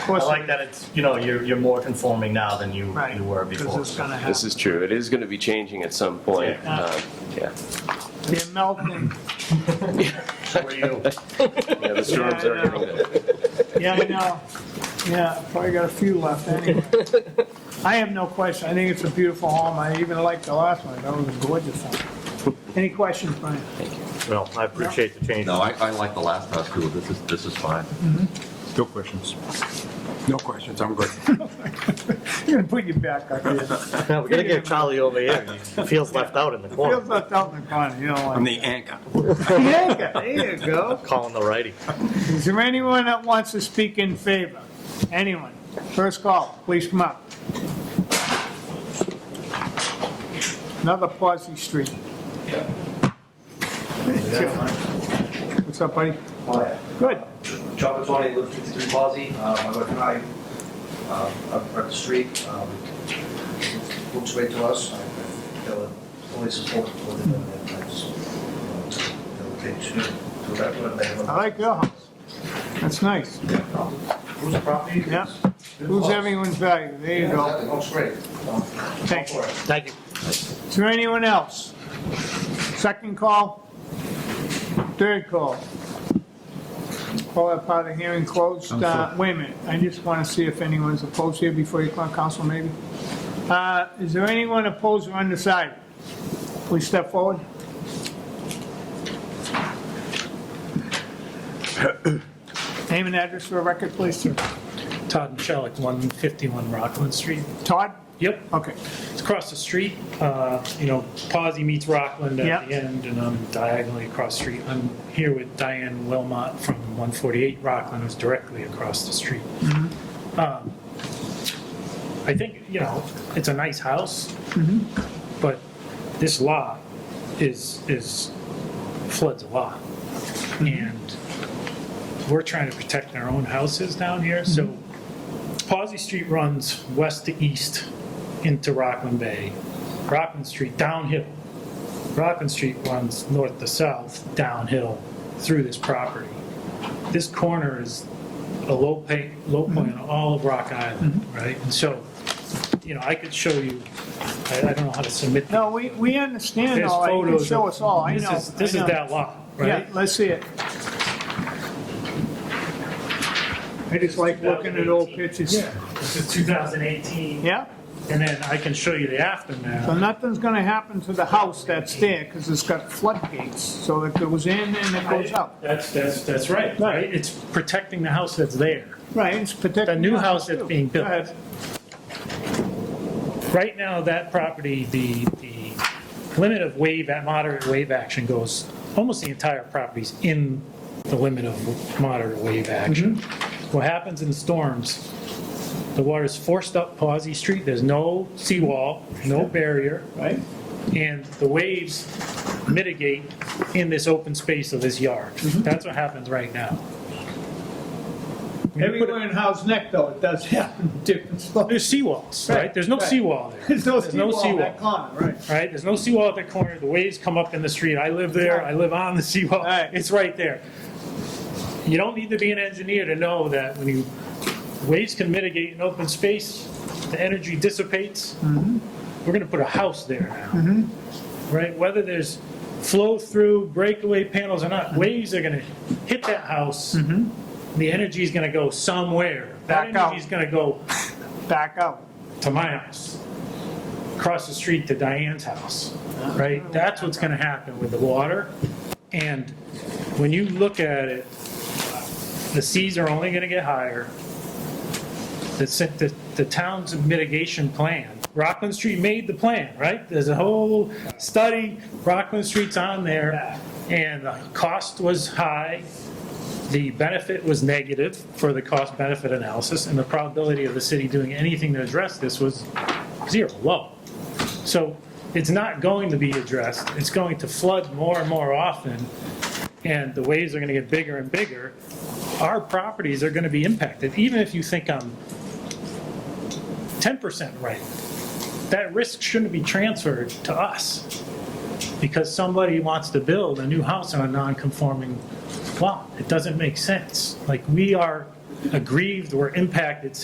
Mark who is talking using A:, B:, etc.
A: I
B: course,
A: like that it's, you know, you're, you're more conforming now than you,
B: right,
A: you were
B: because
A: before.
B: it's going to
C: This
B: happen.
C: is true. It is going to be changing at some point.
B: Yeah.
C: Um, Yeah,
B: They're melting.
A: Where you,
C: Yeah, the storms
B: Yeah,
C: are
B: I know.
C: hitting it.
B: Yeah, I know. Yeah, probably got a few left anyway. I have no question. I think it's a beautiful home. I even liked the last one. That was a gorgeous home. Any questions, Brian?
D: Well, I appreciate the change.
E: No, I, I like the last house too. This is, this is fine.
D: No questions.
F: No questions, I'm good.
B: You're gonna put your back up here.
D: We're gonna get Charlie over here. He feels left out in the
B: Feels
D: corner,
B: left out in the corner, you know,
F: I'm
B: like.
F: the anchor.
B: Yeah, there you go.
D: calling the righty.
B: Is there anyone that wants to speak in favor? Anyone? First call, please come up. Another Posse Street. What's up, buddy?
G: Hi,
B: Good.
G: John Petroni, live at 53 Mozzie. Uh, My wife and I, uh, up up the street, um, looks right to us. I I feel that police is holding for them, and that's, they'll take you to that one. they
B: I
G: have
B: like your house. That's nice.
G: a- Who's the property?
B: Yeah. Who's everyone's value? There you go.
G: It looks great. Um,
B: Thank
G: go for it.
D: Thank you.
B: Is there anyone else? Second call? Third call? Call that part of the hearing closed. Uh, Wait a minute, I just want to see if anyone's opposed here before you call council, maybe. Uh, Is there anyone opposed or undecided? Please step forward. Name and address for the record, please, sir.
H: Todd and Shellick, 151 Rockland Street.
B: Todd?
H: Yep,
B: Okay.
H: it's across the street, uh, you know, Pawsey meets Rockland
B: Yeah.
H: at the end, and I'm diagonally across the street. I'm here with Diane Wilmot from 148 Rockland, who's directly across the street. Um, I think, you know, it's a nice house, but this lot is, is, floods a lot. And we're trying to protect our own houses down here, so
B: Mm-hmm.
H: Pawsey Street runs west to east into Rockland Bay. Rockland Street downhill. Rockland Street runs north to south downhill through this property. This corner is a low pay, low point
B: Mm-hmm.
H: on all of Rock Island, right? And so, you know, I could show you, I, I don't know how to submit.
B: No, we, we understand
H: There's
B: all that. You can
H: photos.
B: show
H: of-
B: us all, I
H: this
B: know.
H: is- This
B: I know.
H: is that lot,
B: Yeah,
H: right?
B: let's see it. I just like looking at old pictures.
H: This is 2018.
B: Yeah,
H: And then I can show you the aftermath.
B: so nothing's gonna happen to the house that's there, because it's got floodgates, so it goes in and it goes out.
H: That's, that's, that's right, right? It's protecting the house that's there.
B: Right, it's protected.
H: The new house that's being built.
B: Go ahead.
H: Right now, that property, the, the limit of wave, at moderate wave action goes, almost the entire property's in the limit of moderate wave action.
B: Mm-hmm.
H: What happens in storms, the water's forced up Pawsey Street, there's no seawall, no barrier.
B: Right?
H: and the waves mitigate in this open space of this yard. That's what happens right now. When you put
B: Everywhere in House Neck, though, it does happen, different
H: a-
B: slopes.
H: There's seawalls, right? There's no
B: Right.
H: seawall there,
B: There's no
H: There's no
B: seawall in that corner, right?
H: right? There's no seawall at the corner, the waves come up in the street, I live there, I live on the seawall,
B: Right.
H: it's right there. You don't need to be an engineer to know that when you, waves can mitigate in open space, the energy dissipates.
B: Mm-hmm.
H: We're gonna put a house there now, right? Whether there's flow-through breakaway panels or not,
B: Mm-hmm.
H: waves are gonna hit that house. The energy is gonna go somewhere. That
B: Back out.
H: energy is gonna go
B: Back out.
H: to my house, across the street to Diane's house, right? That's what's gonna happen with the water. And when you look at it, the seas are only gonna get higher. The, se- the, the town's mitigation plan, Rockland Street made the plan, right? There's a whole study, Rockland Street's on there, and the cost was high. The benefit was negative for the cost benefit analysis, and the probability of the city doing anything to address this was zero, low. So it's not going to be addressed. It's going to flood more and more often, and the waves are going to get bigger and bigger. Our properties are going to be impacted, even if you think I'm 10% right. That risk shouldn't be transferred to us because somebody wants to build a new house on a non-conforming lot. It doesn't make sense. Like, we are aggrieved or impacted